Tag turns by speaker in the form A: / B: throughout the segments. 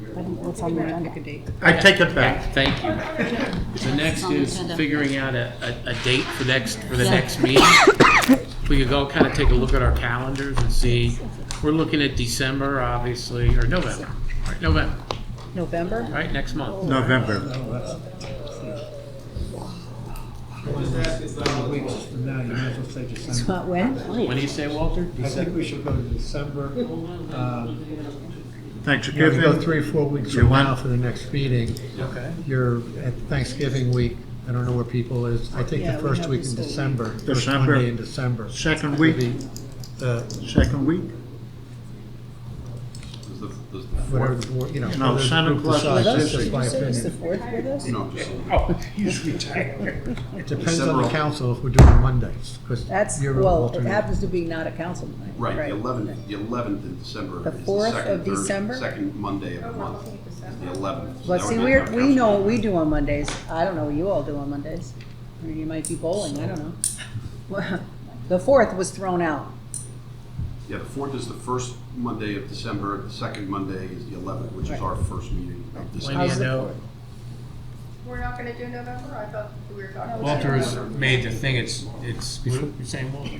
A: What's on the agenda?
B: I take it back.
C: Thank you. The next
A: on the
C: is
A: agenda.
C: figuring out a, a, a date for next, for the
A: Yeah.
C: next meeting. If We could go kind of take a look at our calendars and see, we're looking at December, obviously, or November, right, November,
A: November?
C: right, next month.
B: November.
D: From now, you might as well say December.
A: But when?
C: When do you say, Walter?
D: I think we should go to December. um, You know, if you go
B: Thanksgiving.
D: three, four weeks
B: You
D: from
B: want-
D: now for the next meeting,
C: Okay.
D: you're at Thanksgiving week, I don't know where people is, I think
A: Yeah,
D: the
A: we
D: first
A: have
D: week
A: this
D: in
A: whole week.
D: December, first
B: December.
D: Monday in December.
B: Second
D: would
B: week,
D: be uh, the-
B: second week.
E: Does the, does
D: Whatever the board, you know.
B: You know,
D: whether the
B: Santa
D: group
B: Claus
D: decides,
B: is
D: that's just my
A: Is the
D: opinion.
A: fourth with us?
E: no, just,
C: Oh, he's retired.
D: It depends on
E: December-
D: the council if we're doing Mondays, because
A: That's,
D: you're
A: well, it
D: alternate.
A: happens to be not a council night.
E: right, the eleventh, the eleventh of December.
A: The
E: is
A: 4th of
E: second Thursday-
A: December?
E: Second Monday of the month, is the eleventh.
A: But see, we're, we know what we do on Mondays. I don't know what you all do on Mondays. Or you might be bowling, I don't know. Well, The fourth was thrown out.
E: Yeah, the fourth is the first Monday of December, the second Monday is the eleventh, which is
A: Right.
E: our first meeting of
C: When do you
E: December.
A: How's the
C: know,
F: We're not gonna do November? I thought we were talking.
C: Walter has made the thing, it's, it's, you're saying Walter?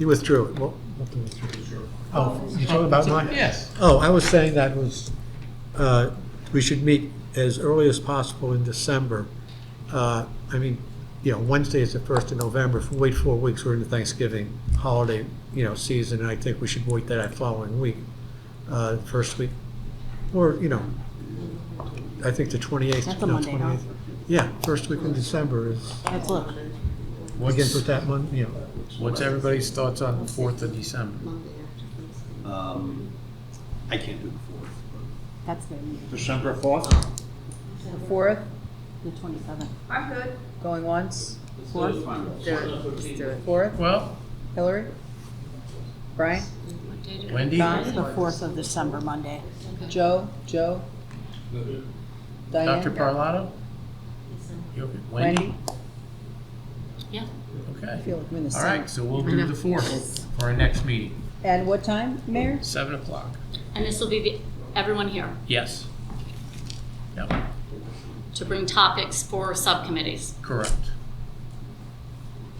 D: You withdrew it, well, what the withdrew? Oh, you're talking about mine?
C: Yes.
D: Oh, I was saying that was, uh, we should meet as early as possible in December. Uh, I mean, you know, Wednesday is the first of November, if we wait four weeks, we're in the Thanksgiving holiday, you know, season, and I think we should wait that following week, uh, first week, or, you know, I think the twenty-eighth.
A: That's a Monday, huh?
D: Yeah, first week in December is,
A: Let's look.
D: again,
C: What's,
D: put that month, you know,
C: what's everybody's thoughts on the fourth of December?
E: Um, I can't do the fourth.
A: That's the,
B: December fourth.
A: the fourth? The twenty-seventh.
F: I'm good.
A: Going once?
E: That's fine.
A: Fourth?
C: Well,
A: Hillary? Brian?
C: Wendy?
A: It's the fourth of December, Monday. Joe, Joe?
C: Dr.
A: Diane?
C: Parlato? You okay?
A: Wendy?
C: Wendy?
A: I
C: Okay.
A: feel like we're in the
C: All
A: same.
C: right, so we'll do the fourth for our next meeting,
A: And what time, Mayor?
C: seven o'clock.
G: And this will be the, everyone here
C: Yes. Yep,
G: to bring topics for subcommittees.
C: correct.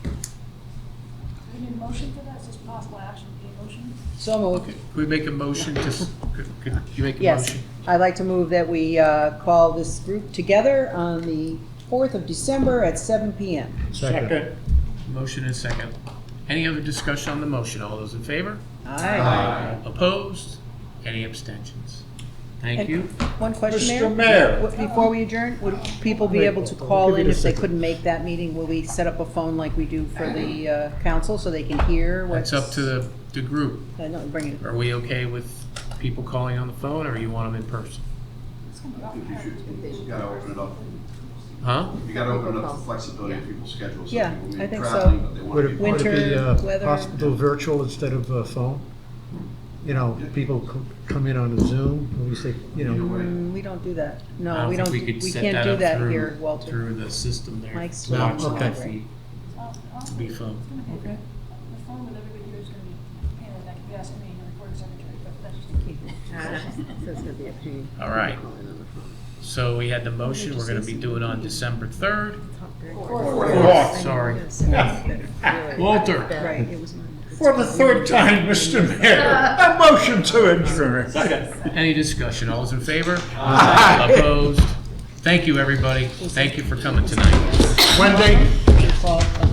H: We need a motion for that, is this possible action, need a motion?
A: So moved.
C: Okay, Could we make a motion to, s- could could you make a
A: Yes,
C: motion?
A: I'd like to move that we uh, call this group together on the 4th of December at 7 PM.
D: second.
C: Motion and second. Any other discussion on the motion? All those in favor?
A: Aye.
C: Opposed? Any abstentions? Thank
A: And-
C: you.
A: One question, Mayor?
B: Mr. Mayor.
A: What- Before we adjourn, would people be able to call in if they couldn't make that meeting? Will we set up a phone like we do for the uh, council so they can hear what's?
C: That's up to the, the group.
A: I know, bring it.
C: Are we okay with people calling on the phone or you want them in person?
E: You gotta open it up,
C: Huh?
E: you gotta open it up for flexibility in people's schedules. Some
A: Yeah,
E: people may
A: I
E: be
A: think so.
E: traveling, but they wanna
D: Would
E: be
D: it,
E: part of
D: would it be
A: Winter,
D: uh,
A: weather.
D: possible virtual instead of uh, phone? You know, people co- come in on Zoom, and we say, you
E: it. Either
D: know,
E: way.
A: Mm, We don't do that.
C: I
A: No, we
C: think
A: don't,
C: could
A: we
C: set
A: can't do
C: up
A: that
C: through-
A: here, Walter.
C: Through the system there.
A: Mike's
C: To watch
D: not
C: live
A: live.
C: feed.
H: Oh, oh,
C: Be fun.
H: it's gonna be- The phone with everybody here is gonna be a pain in the neck, if you ask me, and the recording secretary, but that's just a key.
C: All right. So we had the motion, we're gonna be doing on December third. Fourth, sorry. Walter,
A: Right, it was.
B: For the third time, Mr. Mayor, a motion to adjourn. Second.
C: any discussion? All those in favor?
B: Aye.
C: Opposed? Thank you, everybody. Thank you for coming tonight.
B: Wendy?
A: Well,